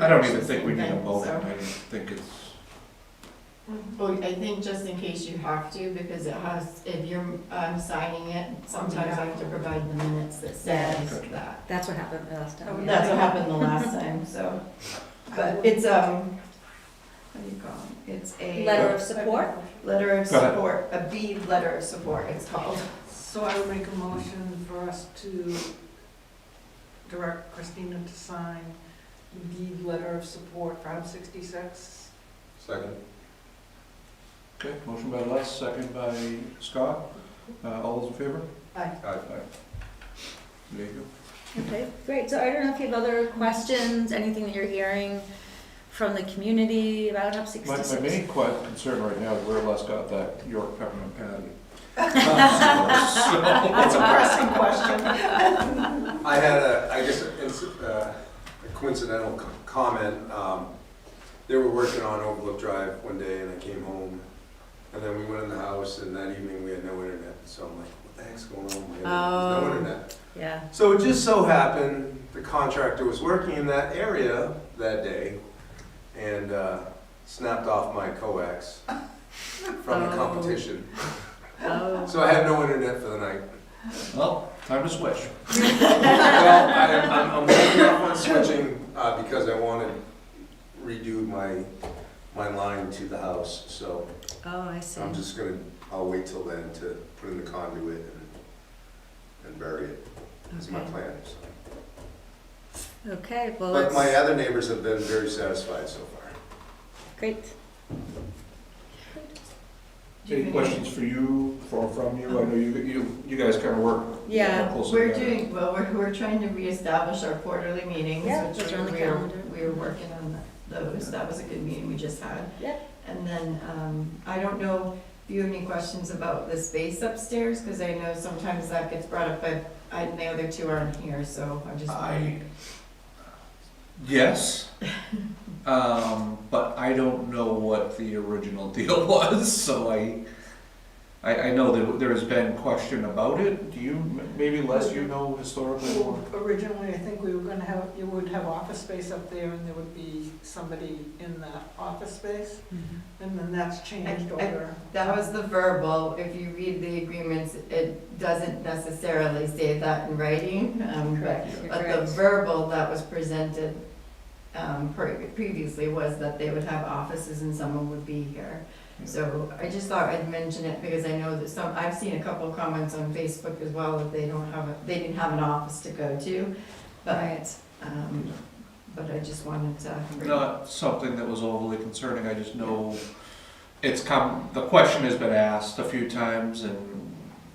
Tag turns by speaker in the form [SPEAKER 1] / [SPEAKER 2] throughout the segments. [SPEAKER 1] I don't even think we need a vote,
[SPEAKER 2] so.
[SPEAKER 1] I think it's,
[SPEAKER 2] Well, I think just in case you have to, because it has, if you're um, signing it, sometimes I have to provide the minutes that says
[SPEAKER 1] Yeah.
[SPEAKER 2] that.
[SPEAKER 3] That's what happened the last time.
[SPEAKER 2] Oh, That's what happened the last time, so, but it's, um, what do you call it? It's a.
[SPEAKER 3] Letter of support?
[SPEAKER 2] Letter of
[SPEAKER 1] Go ahead.
[SPEAKER 2] support, a B letter of support, it's called.
[SPEAKER 4] So I would make a motion for us to direct Christina to sign the letter of support for Hub 66.
[SPEAKER 5] Second.
[SPEAKER 1] okay, motion by Les, second by Scott, uh, all those in favor? Uh,
[SPEAKER 5] Aye.
[SPEAKER 1] There you
[SPEAKER 3] Okay, great. So I don't know if you have other questions, anything that you're hearing from the community about Hub
[SPEAKER 1] go. My, my
[SPEAKER 3] 66?
[SPEAKER 1] main que- concern right now is where Les got that York peppermint patty. So-
[SPEAKER 2] That's a pressing question.
[SPEAKER 5] I had a, I guess, a inc- uh, a coincidental c- comment. Um, They were working on Overlook Drive one day and I came home and then we went in the house and that evening we had no internet. So I'm like, what the heck's going on? We have
[SPEAKER 3] Oh.
[SPEAKER 5] No internet.
[SPEAKER 3] Yeah,
[SPEAKER 5] So it just so happened, the contractor was working in that area that day and uh, snapped off my coax from the
[SPEAKER 3] Oh.
[SPEAKER 5] competition.
[SPEAKER 3] oh.
[SPEAKER 5] So I had no internet for the night.
[SPEAKER 1] Well, time to switch.
[SPEAKER 5] Well, I am, I'm, I'm holding off on switching, uh, because I wanna redo my, my line to the house, so
[SPEAKER 3] Oh, I see.
[SPEAKER 5] I'm just gonna, I'll wait till then to put in the conduit and, and bury it, is my
[SPEAKER 3] Okay.
[SPEAKER 5] plan, so.
[SPEAKER 3] Okay, well,
[SPEAKER 5] But
[SPEAKER 3] that's
[SPEAKER 5] my other neighbors have been very satisfied so far.
[SPEAKER 3] great.
[SPEAKER 1] Any questions for you, for, from you, I know you, you, you guys kinda work.
[SPEAKER 3] Yeah.
[SPEAKER 1] closely
[SPEAKER 2] We're
[SPEAKER 1] together.
[SPEAKER 2] doing, well, we're, we're trying to reestablish our quarterly meetings,
[SPEAKER 3] Yeah,
[SPEAKER 2] which
[SPEAKER 3] those are on
[SPEAKER 2] we
[SPEAKER 3] the
[SPEAKER 2] we're,
[SPEAKER 3] calendar.
[SPEAKER 2] we were working on those. That was a good meeting we just had.
[SPEAKER 3] Yeah.
[SPEAKER 2] And then, um, I don't know if you have any questions about the space upstairs, because I know sometimes that gets brought up, but I, the other two aren't here, so I'm just.
[SPEAKER 1] I, yes, um, but I don't know what the original deal was, so I, I, I know that there has been question about it. Do you, maybe less you know historically more?
[SPEAKER 4] Originally, I think we were gonna have, you would have office space up there and there would be somebody in that office space.
[SPEAKER 2] Mm-hmm.
[SPEAKER 4] And then that's changed
[SPEAKER 2] I- I-
[SPEAKER 4] over.
[SPEAKER 2] That was the verbal, if you read the agreements, it doesn't necessarily say that in writing, um, but
[SPEAKER 3] Correct, you're
[SPEAKER 2] But the
[SPEAKER 3] correct.
[SPEAKER 2] verbal that was presented um, pre- previously was that they would have offices and someone would be here. So I just thought I'd mention it because I know that some, I've seen a couple of comments on Facebook as well that they don't have, a they didn't have an office to go to. But, um, but I just wanted to.
[SPEAKER 1] Not something that was overly concerning, I just know it's come, the question has been asked a few times and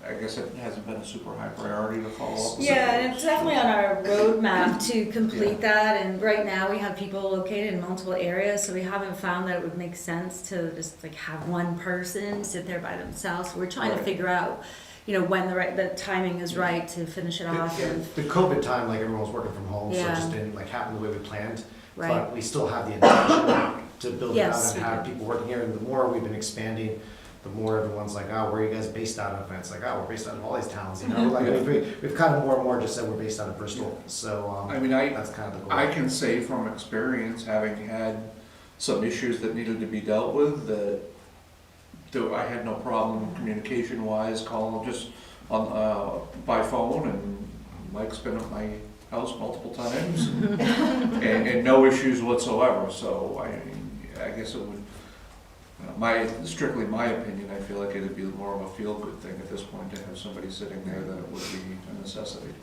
[SPEAKER 1] I guess it hasn't been a super high priority to follow up.
[SPEAKER 3] Yeah, and it's definitely on our roadmap to complete that, and right now we have people located in multiple areas, so we haven't found that it would make sense to just like have one person sit there by themselves. We're trying to
[SPEAKER 1] Right.
[SPEAKER 3] figure out, you know, when the right, the timing is right to finish it off and,
[SPEAKER 6] The COVID time, like everyone was working from home, so it
[SPEAKER 3] Yeah.
[SPEAKER 6] just didn't like happen the way we planned.
[SPEAKER 3] right?
[SPEAKER 6] But we still have the intention to build it
[SPEAKER 3] Yes,
[SPEAKER 6] out
[SPEAKER 3] we
[SPEAKER 6] and have people working here. And the more we've been expanding, the more everyone's like, oh, where are you guys based out of? And it's like, oh, we're based out of all these towns, you know?
[SPEAKER 3] Mm-hmm.
[SPEAKER 6] Like,
[SPEAKER 1] Yeah.
[SPEAKER 6] we've, we've kind of more and more just said we're based out of Bristol, so,
[SPEAKER 1] I
[SPEAKER 6] um,
[SPEAKER 1] mean, I,
[SPEAKER 6] that's kind of the goal.
[SPEAKER 1] I can say from experience, having had some issues that needed to be dealt with, that though I had no problem communication wise, calling just on, uh, by phone and Mike's been at my house multiple times. And, and no issues whatsoever, so I, I guess it would, uh, my, strictly my opinion, I feel like it'd be more of a feel-good thing at this point to have somebody sitting there that would be a necessity.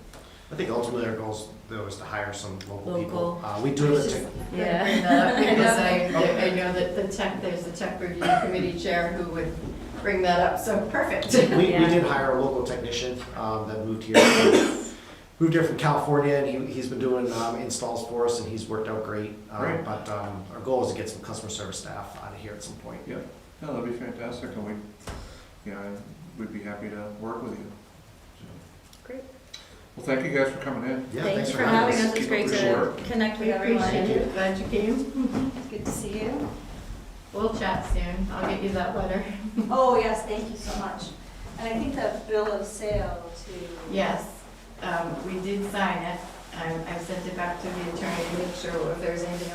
[SPEAKER 6] I think ultimately our goals though is to hire some local people.
[SPEAKER 3] Local.
[SPEAKER 6] Uh, we do it
[SPEAKER 2] Just-
[SPEAKER 6] to,
[SPEAKER 3] Yeah.
[SPEAKER 2] Bring that up because I, I know that the tech, there's a tech review committee chair who would bring that up, so perfect.
[SPEAKER 6] we, we
[SPEAKER 3] Yeah.
[SPEAKER 6] did hire a local technician, um, that moved here. Moved here from California and he, he's been doing, um, installs for us and he's worked out great. Um,
[SPEAKER 1] Great.
[SPEAKER 6] but, um, our goal is to get some customer service staff out of here at some point.
[SPEAKER 1] No, that'd be fantastic, and we, you know, we'd be happy to work with you.
[SPEAKER 3] Great.
[SPEAKER 1] Well, thank you guys for coming in.
[SPEAKER 6] Yeah,
[SPEAKER 3] Thank
[SPEAKER 6] thanks
[SPEAKER 3] you for having us, it's
[SPEAKER 1] Keep
[SPEAKER 3] great
[SPEAKER 1] up the
[SPEAKER 3] to
[SPEAKER 1] good
[SPEAKER 3] connect with
[SPEAKER 2] We appreciate
[SPEAKER 3] everyone.
[SPEAKER 2] it, glad you came.
[SPEAKER 3] Good to see you.
[SPEAKER 2] We'll chat soon, I'll get you that letter.
[SPEAKER 7] Oh, yes, thank you so much. And I think that bill of sale to.
[SPEAKER 2] Yes, um, we did sign it. I, I sent it back to the attorney to make sure if there's anything else